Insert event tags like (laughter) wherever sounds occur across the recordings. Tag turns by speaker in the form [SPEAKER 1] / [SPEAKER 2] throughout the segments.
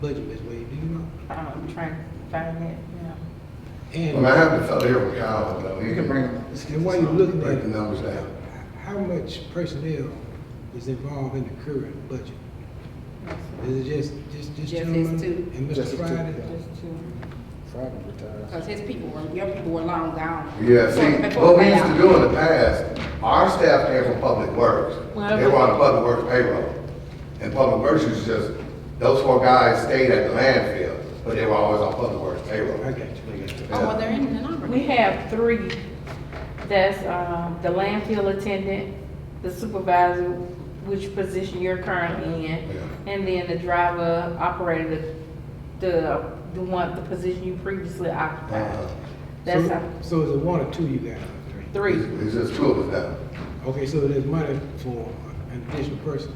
[SPEAKER 1] budget, Ms. Wade, do you know?
[SPEAKER 2] I'm trying to find that now.
[SPEAKER 1] And,
[SPEAKER 3] Well, I have the fellow here with Howard, though. He can bring.
[SPEAKER 1] and while you're looking at
[SPEAKER 3] Break
[SPEAKER 1] it,
[SPEAKER 3] the numbers down.
[SPEAKER 1] h- how much personnel is involved in the current budget? Is it just, just, just
[SPEAKER 4] Just
[SPEAKER 1] gentlemen
[SPEAKER 4] his two.
[SPEAKER 1] and
[SPEAKER 5] Just
[SPEAKER 1] Mr.
[SPEAKER 5] his two,
[SPEAKER 1] Friday?
[SPEAKER 2] Just to,
[SPEAKER 5] Friday
[SPEAKER 1] uh,
[SPEAKER 5] retired.
[SPEAKER 4] Because his people were, your people were long gone.
[SPEAKER 3] Yeah,
[SPEAKER 4] So,
[SPEAKER 3] see,
[SPEAKER 4] before
[SPEAKER 3] what we used to
[SPEAKER 4] now,
[SPEAKER 3] do in the past, our staff came from Public Works.
[SPEAKER 2] Well,
[SPEAKER 3] They were on the Public Works payroll. And Public Works was just, those four guys stayed at the landfill, but they were always on Public Works
[SPEAKER 1] I
[SPEAKER 3] payroll.
[SPEAKER 1] got you, I got you.
[SPEAKER 4] Oh, well, they're in the number.
[SPEAKER 2] we have three. That's, um, the landfill attendant, the supervisor, which position you're currently in,
[SPEAKER 3] Yeah.
[SPEAKER 2] and then the driver operator, the, the, the one, the position you previously
[SPEAKER 3] Uh,
[SPEAKER 2] occupied. That's
[SPEAKER 1] So-
[SPEAKER 2] how,
[SPEAKER 1] So is it one or two you got, or three?
[SPEAKER 2] three.
[SPEAKER 3] It's it's just two of us
[SPEAKER 1] Okay, so there's money for an additional person,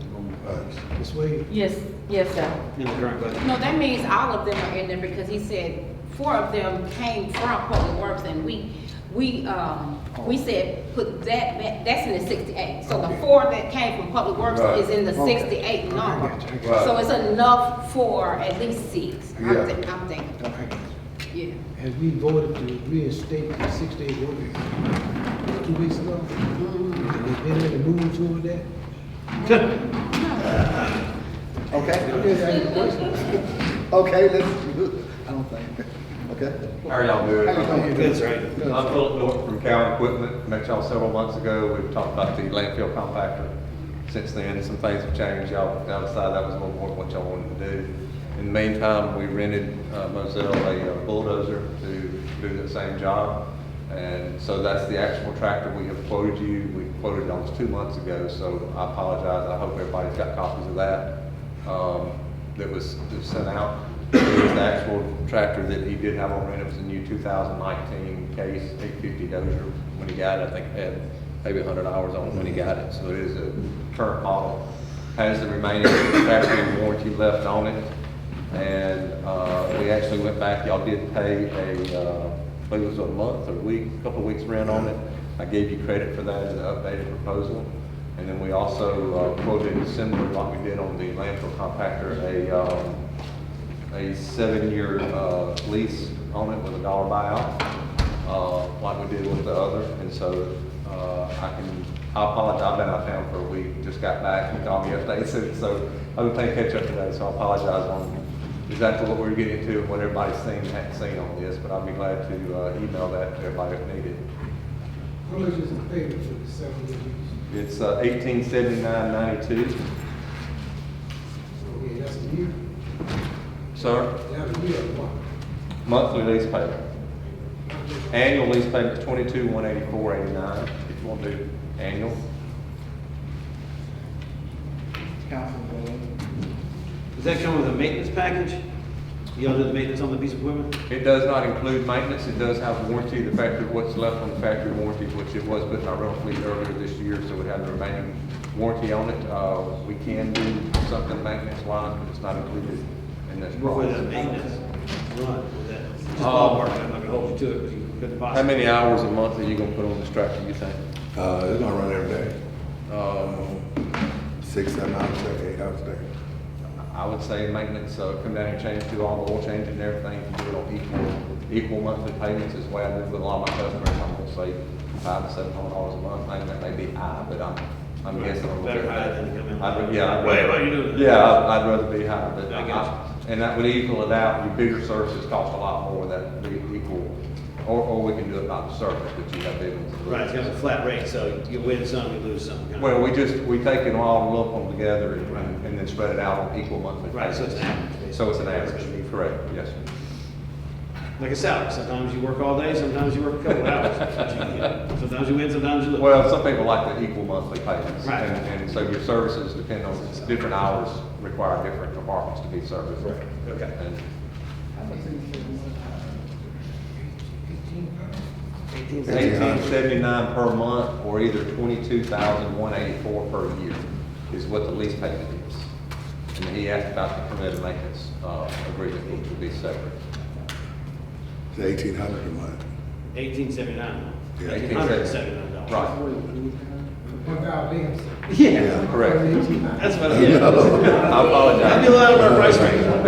[SPEAKER 3] now. Uh,
[SPEAKER 1] Ms. Wade?
[SPEAKER 2] Yes, yes, sir.
[SPEAKER 5] In the current budget.
[SPEAKER 4] No, that means all of them are in there because he said four of them came from Public Works and we, we, um, we said put that, back- that's in the sixty-eight. So the
[SPEAKER 3] Okay.
[SPEAKER 4] four that came from Public Works
[SPEAKER 3] Right.
[SPEAKER 4] is in the
[SPEAKER 5] Okay.
[SPEAKER 4] sixty-eight
[SPEAKER 1] I
[SPEAKER 4] number.
[SPEAKER 1] got you, I
[SPEAKER 3] got you.
[SPEAKER 4] So it's enough for at least six,
[SPEAKER 3] Yeah.
[SPEAKER 4] I'm thinking, I'm thinking,
[SPEAKER 1] I got you.
[SPEAKER 4] yeah.
[SPEAKER 1] As we voted to reinstate the six-day work week two weeks ago, and there's been any movement toward that?
[SPEAKER 5] Okay,
[SPEAKER 1] I'm just asking questions.
[SPEAKER 5] okay, let's, I don't think, okay?
[SPEAKER 6] How are y'all doing?
[SPEAKER 5] How you doing?
[SPEAKER 6] Good.
[SPEAKER 5] Good, sir.
[SPEAKER 6] I'm Philip Norton from Cowan Equipment. Met y'all several months ago. We've talked about the landfill compactor. Since then, some things have changed. Y'all y'all decided that was a little more what y'all wanted to do. In the meantime, we rented uh, Moselle a uh, bulldozer to do the same job. And so that's the actual tractor we have quoted you. We quoted it almost two months ago, so I apologize. I hope everybody's got copies of that. um, that was that was sent out. It was the actual tractor that he did have on rent. It was a new 2019 case, 850 Dozer. When he got it, I think it had maybe 100 hours on it when he got it. So it is a current model. Has the remaining factory warranty left on it. And uh, we actually went back, y'all did pay a, uh, I believe it was a month or a week, a couple of weeks rent on it. I gave you credit for that in the updated proposal. And then we also uh, quoted similar, like we did on the landfill compactor, a, um, a seven-year uh, lease on it with a dollar buyout, uh, like we did with the other. And so uh, I can, I apologize, I've been out of town for a week, just got back, and called me (laughs) yesterday, so- so I've been playing catch-up today, so I apologize on exactly what we're getting to and what everybody's seen, hadn't seen on this, but I'll be glad to uh, email that to everybody if needed.
[SPEAKER 1] How much is the payment for the seven-day weeks?
[SPEAKER 6] It's uh, eighteen seventy-nine ninety-two,
[SPEAKER 1] Okay, that's a year,
[SPEAKER 6] sir.
[SPEAKER 1] that's a year, one.
[SPEAKER 6] Monthly lease payment. Annual lease payment is twenty-two, one eighty-four, eighty-nine, if you want to do annual.
[SPEAKER 7] Does that come with a maintenance package? Y'all do the maintenance on the piece of equipment?
[SPEAKER 6] It does not include maintenance, it does have warranty, the factory, what's left on the factory warranty, which it was put in our rental fleet earlier this year, so it had the remaining warranty on it. Uh, we can do something maintenance wise, but it's not included in this
[SPEAKER 7] What would that
[SPEAKER 6] price.
[SPEAKER 7] maintenance run with that? Just
[SPEAKER 6] Uh,
[SPEAKER 7] ballpark, I'm not gonna hold you to it, but you couldn't
[SPEAKER 6] How
[SPEAKER 7] possibly.
[SPEAKER 6] many hours a month are you gonna put on this tractor, you think?
[SPEAKER 3] uh, it's gonna run every day,
[SPEAKER 6] Um,
[SPEAKER 3] six, seven hours a day, eight hours a day.
[SPEAKER 6] I would say maintenance, uh, come down and change, do all the oil change and everything, do it on equal, equal monthly payments is the way I do with a lot of my customers. I'm gonna say five to seven hundred dollars a month, I think that may be high, but I'm, I'm guessing. a little bit.
[SPEAKER 7] Better high than to come in.
[SPEAKER 6] I'd ra- Yeah. I'd
[SPEAKER 7] Wait,
[SPEAKER 6] rather-
[SPEAKER 7] what you doing?
[SPEAKER 6] Yeah, I'd, I'd rather be high, but.
[SPEAKER 7] I got you.
[SPEAKER 6] And that would equal it out, your bigger services cost a lot more, that'd be equal, or, or we can do it by the service, but you have big ones.
[SPEAKER 7] Right, it's got a flat rate, so you win some, you lose some. kind of-
[SPEAKER 6] Well, we just, we take it all, lump them together and, and then spread it out on equal monthly
[SPEAKER 7] Right,
[SPEAKER 6] payments.
[SPEAKER 7] so it's an average.
[SPEAKER 6] So it's an average, correct, yes, sir.
[SPEAKER 7] Like a salary, sometimes you work all day, sometimes you work a
[SPEAKER 6] (laughs)
[SPEAKER 7] couple hours. That's what you get. Sometimes you win, sometimes you lose.
[SPEAKER 6] Well, some people like the equal monthly payments.
[SPEAKER 7] Right.
[SPEAKER 6] And, and so your services depend on, different hours require different departments to be serviced.
[SPEAKER 7] Right, okay.
[SPEAKER 6] And It's eighteen seventy-nine per month, or either twenty-two thousand one eighty-four per year is what the lease payment is. And then he asked about the permitted maintenance, uh, agreement, which would be separate.
[SPEAKER 3] It's eighteen hundred a month.
[SPEAKER 7] Eighteen seventy-nine.
[SPEAKER 3] Yeah.
[SPEAKER 7] Eighteen hundred and seventy-nine dollars.
[SPEAKER 6] Right,
[SPEAKER 1] One thousand leaves.
[SPEAKER 7] Yeah,
[SPEAKER 6] correct.
[SPEAKER 7] that's what, yeah.
[SPEAKER 3] No.
[SPEAKER 6] (laughs) I apologize.
[SPEAKER 7] That'd be a lot of our price range.